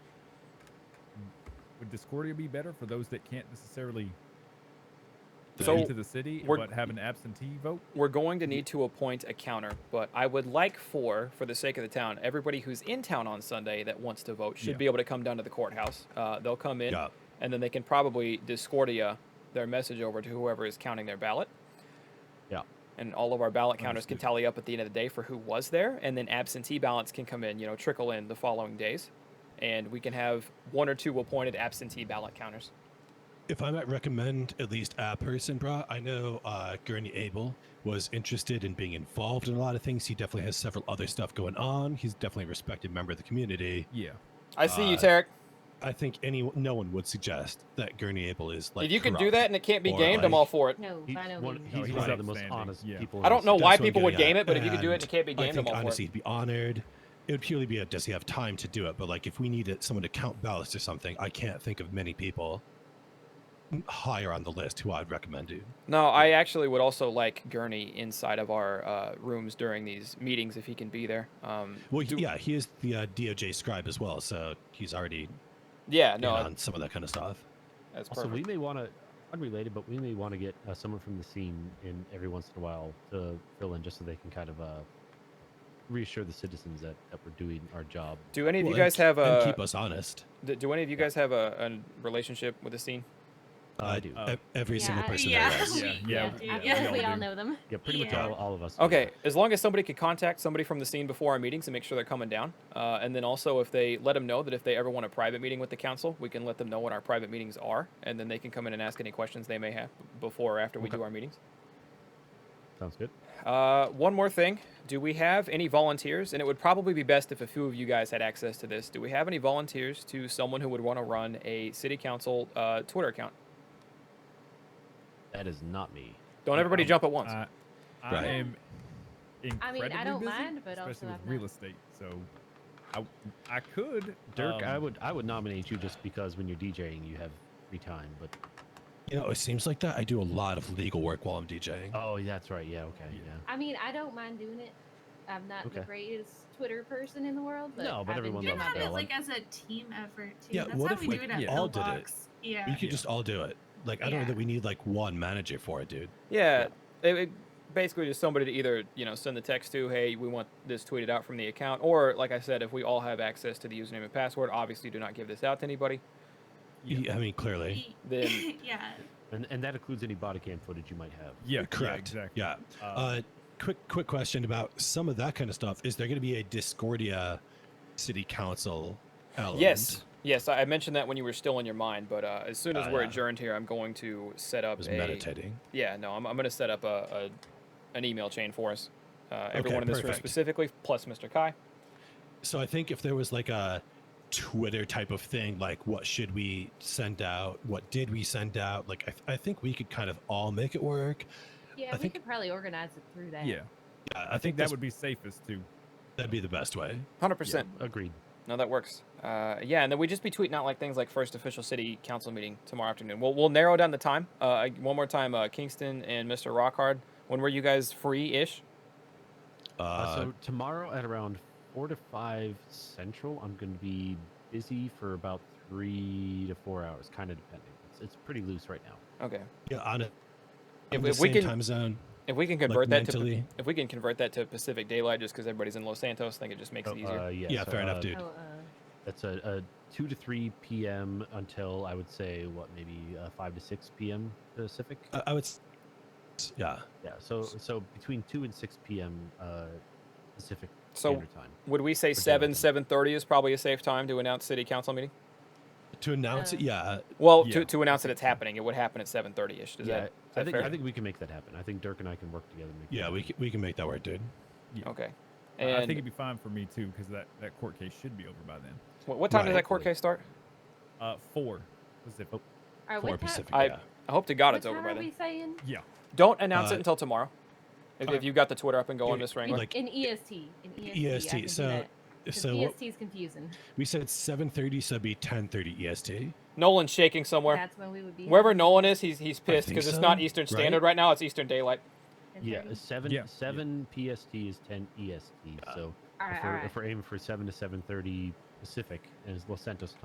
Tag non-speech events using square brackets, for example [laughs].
Discordia be better for those that can't necessarily get So, into the city we're- but have an absentee vote? We're going to need to appoint a counter, but I would like for, for the sake of the town, everybody who's in town on Sunday that wants to vote should Yeah. be able to come down to the courthouse. Uh, they'll come in, Yeah. and then they can probably Discordia their message over to whoever is counting their ballot. Yeah. And all of our ballot counters can Understood. tally up at the end of the day for who was there, and then absentee ballots can come in, you know, trickle in the following days, and we can have one or two appointed absentee ballot counters. If I might recommend at least a person, brah, I know uh, Gurney Abel was interested in being involved in a lot of things. He definitely has several other stuff going on. He's definitely a respected member of the community. [laughs] Yeah. I see you, Uh, Tarek. I think any no one would suggest that Gurney Abel is like. if you can do corrupt. that and it can't be or, gamed, I'm like- all for it. No, He's by no one, means. No, he's he's one of the most outstanding, honest yeah. people. I don't know That's why what I'm people would getting game at. it, but if you could do it and it And can't be I gamed, I'm think all for honestly it. he'd be honored. It would purely be a does he have time to do it? But like if we needed someone to count ballots or something, I can't think of many people higher on the list who I'd recommend to. No, I actually would also like Gurney inside of our uh, rooms during these meetings if he can be there. Um, Well, do- yeah, he is the uh, DOJ scribe as well, so he's already yeah, no, no, on some of that kind of stuff. that's Also, perfect. we may want to, unrelated, but we may want to get uh, someone from the scene in every once in a while to fill in just so they can kind of uh, reassure the citizens that, that we're doing our job. do any of you Well, and guys have k- and a? keep us honest. d- Do any of you guys have a, a relationship with the scene? Uh, Uh, I do. Oh. uh, E- every single I- person yeah. there is. Yeah, we- yeah, I we- yeah, feel we like all we all do. know them. yeah, pretty much yeah. all, all of Oh, us. do. Okay, as long as somebody could contact somebody from the scene before our meetings and make sure they're coming down, uh, and then also if they let them know that if they ever want a private meeting with the council, we can let them know what our private meetings are, and then they can come in and ask any questions they may have before or after we do our meetings. Sounds good. Uh, one more thing. Do we have any volunteers? And it would probably be best if a few of you guys had access to this. Do we have any volunteers to someone who would want to run a city council uh, Twitter account? That is not me. Don't everybody Um, jump at once. Uh, I, I Right. am I mean, I incredibly don't busy, mind, but also especially I'm with not- real estate. So I I could Dirk, I um, would I would nominate you just because when you're DJing, you have free time. But You know, it seems like that. I do a lot of legal work while I'm DJing. oh, that's right. Yeah. Okay. Yeah. Yeah. I mean, I don't mind doing it. I'm not the Okay. greatest Twitter person in the world, but No, but I've been everyone doing Can loves my have it best. Bella. like as a team effort too. Yeah, That's what how if we we do it at all did it? Pillbox. Yeah. We could just all do it. Like I don't know Yeah. that we need like one manager for it, dude. yeah. It, it- basically, just somebody to either you know send the text to, hey, we want this tweeted out from the account, or like I said, if we all have access to the username and password, obviously do not give this out to anybody. Yeah, I mean, clearly. E- Then- [laughs] yeah. And and that includes any body cam footage you might have. yeah, Correct. Yeah, Yeah. exactly. Uh, Uh, quick, quick question about some of that kind of stuff. Is there going to be a Discordia City Council element? Yes. Yes, I I mentioned that when you were still in your mind, but uh, as soon as Oh, we're yeah. adjourned here, I'm going to set I up was a meditating. Yeah, no, I'm, I'm going to set up a, a an email chain for us. Uh, everyone in this room perfect. specifically, plus Mr. Kai. So I think if there was like a Twitter type of thing, like what should we send out? What did we send out? Like I, th- I think we could kind of all make it work. Yeah, I we think- could probably organize it through that. yeah, Yeah, I, I think think that that would would be safest too. that'd be the best way. 100%. Yeah, agreed. No, that works. Uh, yeah, and then we just be tweeting out like things like first official city council meeting tomorrow afternoon. We'll, we'll narrow down the time. Uh, one more time, uh, Kingston and Mr. Rockhard, when were you guys free-ish? Uh, Uh, so tomorrow at around four to five central, I'm going to be busy for about three to four hours, kind of depending. It's, it's pretty loose right now. Okay. yeah, on a If- on the if we same can time zone, If we can like convert that to mentally. if we can convert that to Pacific Daylight just because everybody's in Los Santos, I think it just Oh, makes it easier. Uh, yeah, Yeah, so, fair enough, uh, dude. Oh, uh, That's a, a two to three p.m. until I would say what maybe uh, five to six p.m. Pacific. I, I would. s- Yeah. yeah. So so between two and six p.m. Uh, Pacific So- Standard Time. Would we say daylight seven, time. seven thirty is probably a safe time to announce city council meeting? To announce Uh, it, yeah. Well, Yeah, to, to announce that it's happening, it would happen at seven thirty ish. Is yeah, that, is I that think fair? I think we can make that happen. I think Dirk and I can work together. and Make that Yeah, we happen. can, we can make that work, dude. Okay. I- And I think it'd be fine for me too because that that court case should be over by then. what, what time does Right. that court case start? Uh, four Pacific. are we For ti- Pacific. I- yeah. I hope to God what it's over time by are then. we saying? Yeah, Don't announce Uh, it until tomorrow. If, okay. if you got the Twitter up and going, Yeah, Miss In, Wrangler. Like- in EST. In EST. I EST, can do so- that, 'cause So what, EST is confusing. we said 7:30, so it'd be E 10:30 EST. Nolan's shaking somewhere. That's when we would be. Wherever Nolan is, he's he's pissed think because it's so, not Eastern right? Standard right now. It's Eastern Daylight. Yeah, All seven Yeah, yeah. seven PST is ten EST. So right, if all we're, right. if we're aiming for seven to seven thirty Pacific, and it's Los Santos time,